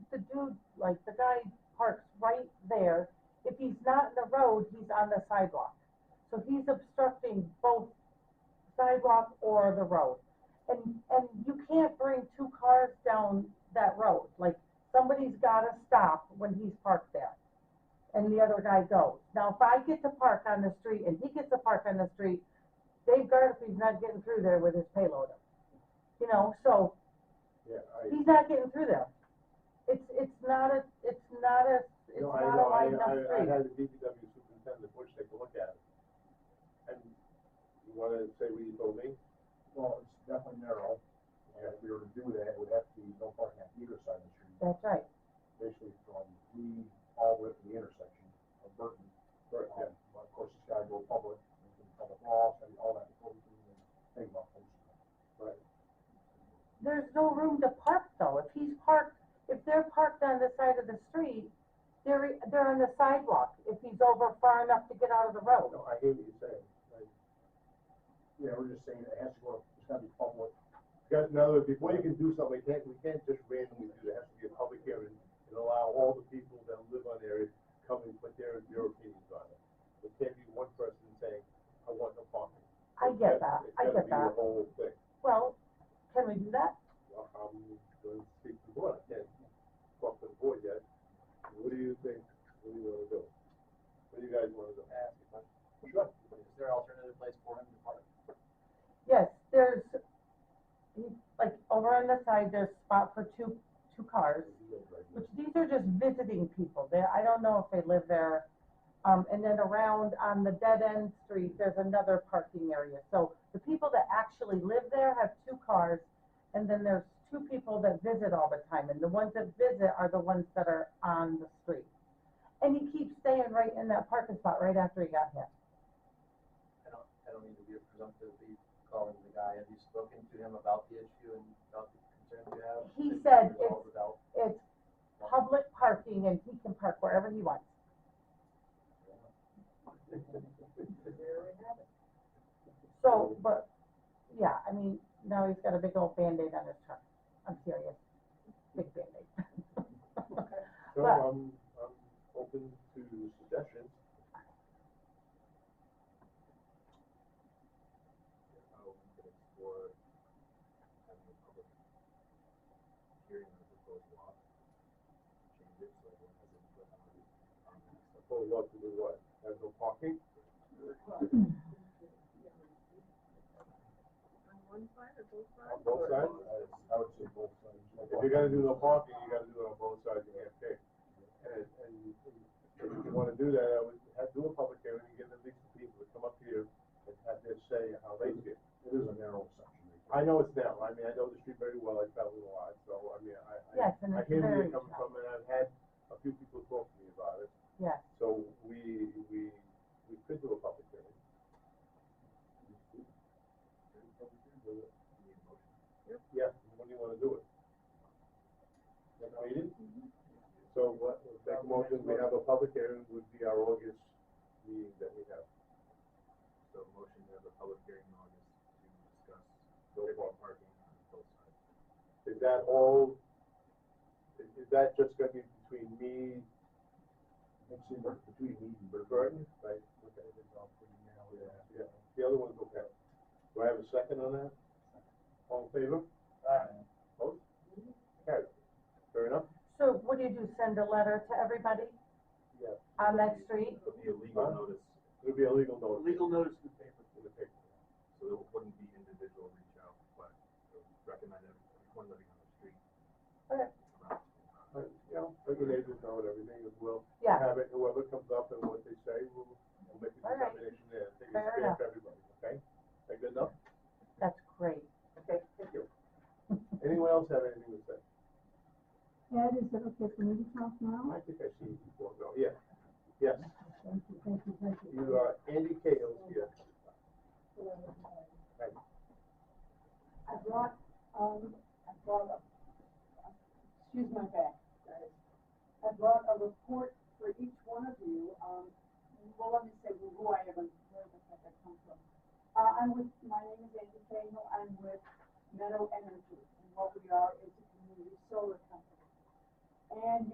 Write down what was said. dude, like, the guy parks right there. If he's not in the road, he's on the sidewalk. So he's obstructing both sidewalk or the road. And, and you can't bring two cars down that road. Like, somebody's gotta stop when he's parked there. And the other guy goes. Now, if I get to park on the street and he gets to park on the street, Dave Gardefee's not getting through there with his payload. You know, so Yeah, I, he's not getting through there. It's, it's not a, it's not a, it's no, not I a know, I, wide enough I, I street. had the DPW superintendent Bush take a look at it. And you wanna say what you told me? Well, it's definitely narrow, and if we were to do that, it would have to be no parking on either side of the street, That's right. basically from the, all the way to the intersection of Burton. Right, yeah. Um, But of course, it's gotta go public, and then public law, and all that, before we can even think about things. Right. There's no room to park though. If he's parked, if they're parked on the side of the street, they're, they're on the sidewalk if he's over far enough to get out of the road. No, I hear what you're saying. Like, Yeah, we're just saying it has to go, it's gotta be public, Because in other words, before you can do something, you can't, we can't just randomly do that, it has to be a public hearing and allow all the people that live on there to come and put their, their opinions on it. It can't be one person saying, I want no parking. I get that. I get It's gotta be that. the whole thing. Well, can we do that? Well, I'm gonna speak to the board, I can't talk to the board yet. What do you think, what do you wanna do? What do you guys wanna do? ask a question. Sure. Is there alternative place for him to park? Yes, there's, like, over on the side, there's spot for two, two cars. Which these are just visiting people. They, I don't know if they live there. Um, and then around on the dead end street, there's another parking area. So the people that actually live there have two cars. And then there's two people that visit all the time. And the ones that visit are the ones that are on the street. And he keeps staying right in that parking spot right after he got hit. I don't, I don't need to be presumptively calling the guy. Have you spoken to him about the issue and about the concerns you have? He Did you said resolve Without, It's public parking and he can park wherever he wants. So, but, yeah, I mean, now he's got a big old Band-Aid on his truck. I'm serious. Big Band-Aid. No, But- I'm, I'm open to suggestions. how we could explore having a public hearing on the proposed law. Change it so everyone has input on, on the stuff. Oh, you want to do what? Have no parking? On one side or both sides? On both sides? I would say both sides. If you're gonna do no parking, you gotta do it on both sides, you can't pick. And, and if you wanna do that, I would have, do a public hearing and get at least the people to come up here and have their say how they feel. It is a narrow section. I know it's narrow, I mean, I know the street very well, I travel a lot, so, I mean, I, I. Yes, and I it's hear where very you're coming tough. from, and I've had a few people talk to me about it. Yes. So we, we, we could do a public hearing. Yeah, when do you wanna do it? Next meeting? Mm-hmm. So what, next motion, we have a public hearing, would be our August meeting that we have, So motion to have a public hearing in August to discuss no problem. parking on both sides. Is that all, is, is that just gonna be between me It's in between me and and Burton. Burton? Right, okay. Yeah, the other one's okay. Do I have a second on that? All in favor? Aye. Opposed? Carried. Fair enough? So what do you do, send a letter to everybody Yeah. on that street? It'll be a legal Huh? notice, It'll be a legal notice. legal notice in the paper, In the paper. so it wouldn't be individual reach out, but I would recommend everyone living on the street. Okay. around, uh, But, you know, regulators know and everything as well. Yeah. Have it, whoever comes up and what they say, we'll, we'll make a All right. determination there. I think it's Fair fair enough. for everybody, okay? Is that good enough? That's great. Okay, thank you. Anyone else have anything to say? Ed, is it okay for me to talk now? I think I see you before, though, yeah. Yes, Thank you, thank you, thank you. you are Andy Cales here. I brought, um, I brought a, excuse my back, guys. I brought a report for each one of you, um, well, let me say who I am and where the heck I come from. Uh, I'm with, my name is Andy Cagle, I'm with Meadow Energy, and what we are is a community solar company. and